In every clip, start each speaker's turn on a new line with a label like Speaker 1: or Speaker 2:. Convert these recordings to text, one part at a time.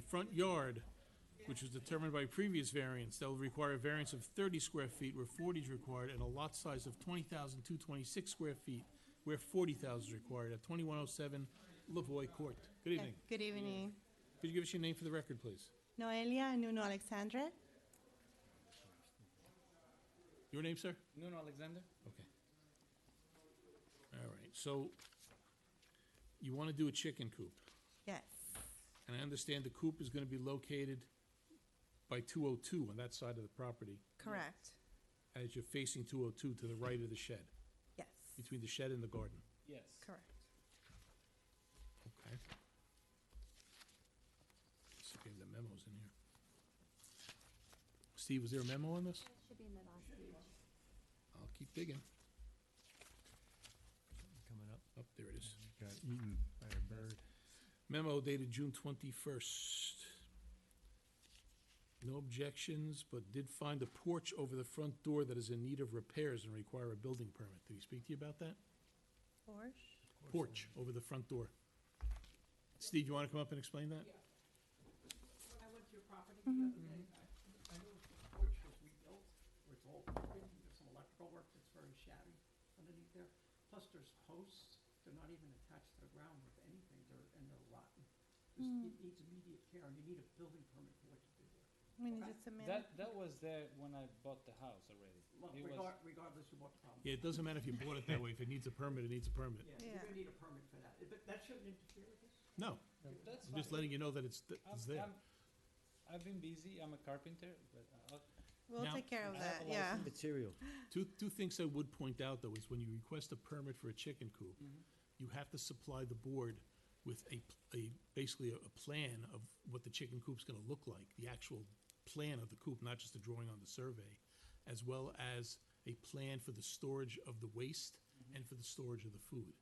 Speaker 1: front yard, which was determined by previous variance, that will require a variance of thirty square feet where forty is required, and a lot size of twenty thousand two twenty-six square feet where forty thousand is required at twenty-one oh seven Lavoy Court. Good evening.
Speaker 2: Good evening.
Speaker 1: Could you give us your name for the record, please?
Speaker 2: Noelia Nuno Alexandra.
Speaker 1: Your name, sir?
Speaker 3: Nuno Alexander?
Speaker 1: Okay. All right, so you want to do a chicken coop,
Speaker 2: Yes,
Speaker 1: and I understand the coop is going to be located by 202 on that side of the property,
Speaker 2: correct.
Speaker 1: as you're facing 202 to the right of the shed,
Speaker 2: Yes,
Speaker 1: between the shed and the garden.
Speaker 3: Yes.
Speaker 2: correct.
Speaker 1: Okay. So we have the memos in here. Steve, was there a memo on this?
Speaker 4: Should be in the last page.
Speaker 1: I'll keep digging.
Speaker 5: coming up.
Speaker 1: Oh, there it is.
Speaker 5: Got eaten by a bird.
Speaker 1: Memo dated June twenty-first. No objections, but did find a porch over the front door that is in need of repairs and require a building permit. Did he speak to you about that?
Speaker 2: Porsche.
Speaker 1: Porch over the front door. Steve, you want to come up and explain that?
Speaker 6: I went to your property the other day,
Speaker 2: Mm-hmm.
Speaker 6: I, I noticed the porch was rebuilt, where it's all crooked, and there's some electrical work that's very shabby underneath there. Plus, there's posts, they're not even attached to the ground with anything, they're, and they're rotten. This-
Speaker 2: Mm.
Speaker 6: It needs immediate care, and you need a building permit for what you do there.
Speaker 2: We need just a minute.
Speaker 3: That, that was there when I bought the house already.
Speaker 6: Look,
Speaker 3: It was-
Speaker 6: regar- regardless of what the problem.
Speaker 1: Yeah, it doesn't matter if you bought it that way. If it needs a permit, it needs a permit.
Speaker 6: Yeah,
Speaker 2: Yeah.
Speaker 6: you're gonna need a permit for that, but that shouldn't interfere with this.
Speaker 1: No,
Speaker 3: That's
Speaker 1: I'm just
Speaker 3: fine.
Speaker 1: letting you know that it's, th-
Speaker 3: I'm-
Speaker 1: it's there.
Speaker 3: I'm- I've been busy, I'm a carpenter, but I'll,
Speaker 2: We'll
Speaker 1: Now-
Speaker 2: take care of
Speaker 3: I
Speaker 2: that,
Speaker 3: have a
Speaker 2: yeah.
Speaker 5: Material.
Speaker 1: Two, two things I would point out, though, is when you request a permit for a chicken coop, you have to supply the board with a, pl- a, basically a, a plan of what the chicken coop's gonna look like, the actual plan of the coop, not just a drawing on the survey, as well as a plan for the storage of the waste and for the storage of the food.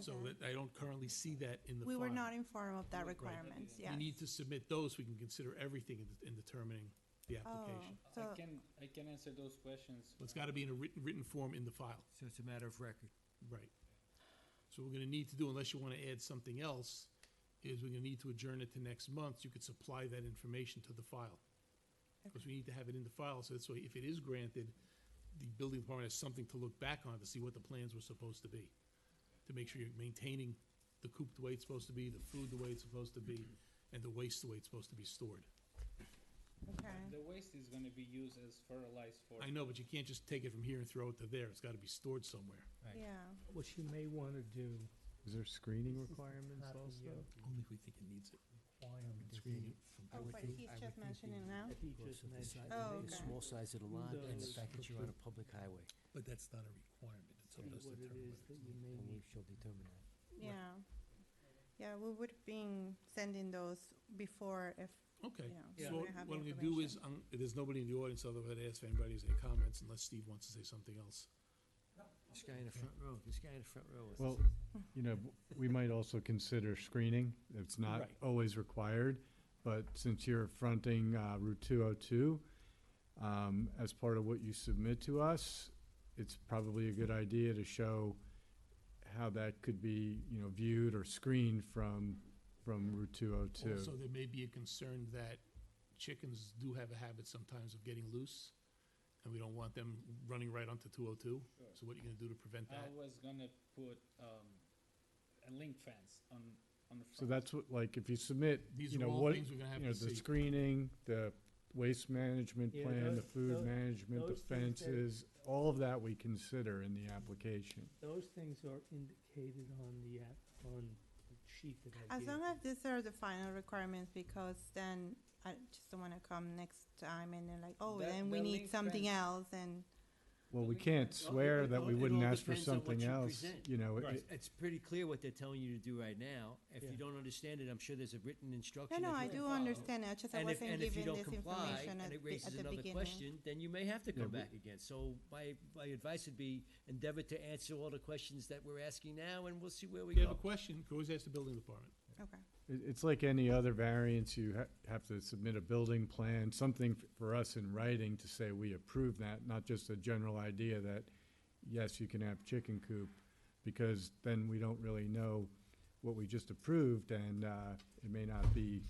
Speaker 1: So
Speaker 2: Okay.
Speaker 1: that, I don't currently see that in the file.
Speaker 2: We were not informed of that
Speaker 1: Right.
Speaker 2: requirement,
Speaker 1: You
Speaker 2: yes.
Speaker 1: need to submit those, we can consider everything in, de- in determining the
Speaker 2: Oh,
Speaker 1: application.
Speaker 2: so,
Speaker 3: I can, I can answer those questions.
Speaker 1: But It's gotta be in a written, written form in the file.
Speaker 5: So it's a matter of record.
Speaker 1: Right. So we're gonna need to do, unless you wanna add something else, is we're gonna need to adjourn it to next month, you could supply that information to the file. Because we need to have it in the file, so that's why if it is granted, the building department has something to look back on to see what the plans were supposed to be. To make sure you're maintaining the coop the way it's supposed to be, the food the way it's supposed to be, and the waste the way it's supposed to be stored.
Speaker 2: okay,
Speaker 3: The waste is gonna be used as fertilized for.
Speaker 1: I know, but you can't just take it from here and throw it to there, it's gotta be stored somewhere.
Speaker 2: yeah.
Speaker 7: What you may want to do,
Speaker 5: Is there screening requirements
Speaker 7: Not
Speaker 5: also?
Speaker 7: you.
Speaker 1: Only if we think it needs it.
Speaker 7: why
Speaker 5: I
Speaker 7: I'm
Speaker 5: would
Speaker 7: doing it
Speaker 5: think-
Speaker 7: from
Speaker 2: Oh, but he's just mentioning now.
Speaker 7: he
Speaker 5: because
Speaker 7: just
Speaker 5: of the
Speaker 7: mentioned.
Speaker 5: size
Speaker 2: Oh,
Speaker 5: of the-
Speaker 2: okay.
Speaker 5: Small size of the lot and the
Speaker 7: Those
Speaker 5: fact that you're on a
Speaker 7: proposed-
Speaker 5: public highway,
Speaker 1: But that's not a requirement, it's
Speaker 7: See what it is that you may
Speaker 5: and we
Speaker 7: need.
Speaker 5: shall determine that.
Speaker 2: Yeah. Yeah, we would been sending those before if,
Speaker 1: Okay.
Speaker 2: you know. we
Speaker 1: So
Speaker 2: have the
Speaker 1: what I'm gonna do is,
Speaker 2: information.
Speaker 1: um, there's nobody in the audience, although I'd ask if anybody has any comments, unless Steve wants to say something else.
Speaker 5: This guy in the front row, this guy in the front row.
Speaker 8: Well, you know, we might also consider screening. It's not
Speaker 1: Right.
Speaker 8: always required, but since you're fronting uh, Route 202, um, as part of what you submit to us, it's probably a good idea to show how that could be, you know, viewed or screened from, from Route 202.
Speaker 1: Also, there may be a concern that chickens do have a habit sometimes of getting loose, and we don't want them running right onto two oh two.
Speaker 3: Sure.
Speaker 1: So what are you gonna do to prevent
Speaker 3: I
Speaker 1: that?
Speaker 3: was gonna put, um, a link fence on, on the front.
Speaker 8: So that's what, like, if you submit,
Speaker 1: These
Speaker 8: you
Speaker 1: are
Speaker 8: know,
Speaker 1: all
Speaker 8: what,
Speaker 1: things we're gonna have
Speaker 8: you know,
Speaker 1: to
Speaker 8: the
Speaker 1: see.
Speaker 8: screening, the waste management
Speaker 7: Yeah,
Speaker 8: plan, the
Speaker 7: those- tho-
Speaker 8: food management, the
Speaker 7: those things that-
Speaker 8: fences, all of that we consider in the application.
Speaker 7: Those things are indicated on the, app- on the sheet that I
Speaker 2: As
Speaker 7: gave
Speaker 2: long
Speaker 7: you.
Speaker 2: as these are the final requirements, because then I just don't wanna come next time and they're like, oh,
Speaker 3: That-
Speaker 2: then we
Speaker 3: that
Speaker 2: need
Speaker 3: link
Speaker 2: something
Speaker 3: fence-
Speaker 2: else and,
Speaker 8: Well, we
Speaker 3: Well,
Speaker 8: can't
Speaker 3: it-
Speaker 8: swear
Speaker 5: it
Speaker 8: that
Speaker 5: all-
Speaker 8: we
Speaker 5: it
Speaker 8: wouldn't
Speaker 5: all
Speaker 8: ask for
Speaker 5: depends on what
Speaker 8: something
Speaker 5: you
Speaker 8: else,
Speaker 5: present.
Speaker 8: you know, it-
Speaker 1: Right.
Speaker 5: It's pretty clear what they're telling you to do right now. If
Speaker 7: Yeah.
Speaker 5: you don't understand it, I'm sure there's a written
Speaker 2: no,
Speaker 5: instruction.
Speaker 2: no,
Speaker 5: that
Speaker 2: I
Speaker 5: you can
Speaker 2: do
Speaker 5: follow.
Speaker 2: understand, I just I
Speaker 5: And if,
Speaker 2: wasn't
Speaker 5: and if you
Speaker 2: given
Speaker 5: don't
Speaker 2: this
Speaker 5: comply,
Speaker 2: information at
Speaker 5: and
Speaker 2: the,
Speaker 5: it
Speaker 2: be- at
Speaker 5: raises
Speaker 2: the
Speaker 5: another
Speaker 2: beginning.
Speaker 5: question, then you may have to come
Speaker 8: we-
Speaker 5: back again. So my, my advice would be endeavor to answer all the questions that we're asking now, and we'll see where we
Speaker 1: If you have a
Speaker 5: go.
Speaker 1: question, you can always ask the building department.
Speaker 2: Okay,
Speaker 8: it- it's like any other variance, you ha- have to submit a building plan, something f- for us in writing to say we approve that, not just a general idea that, yes, you can have chicken coop, because then we don't really know what we just approved, and, uh, it may not be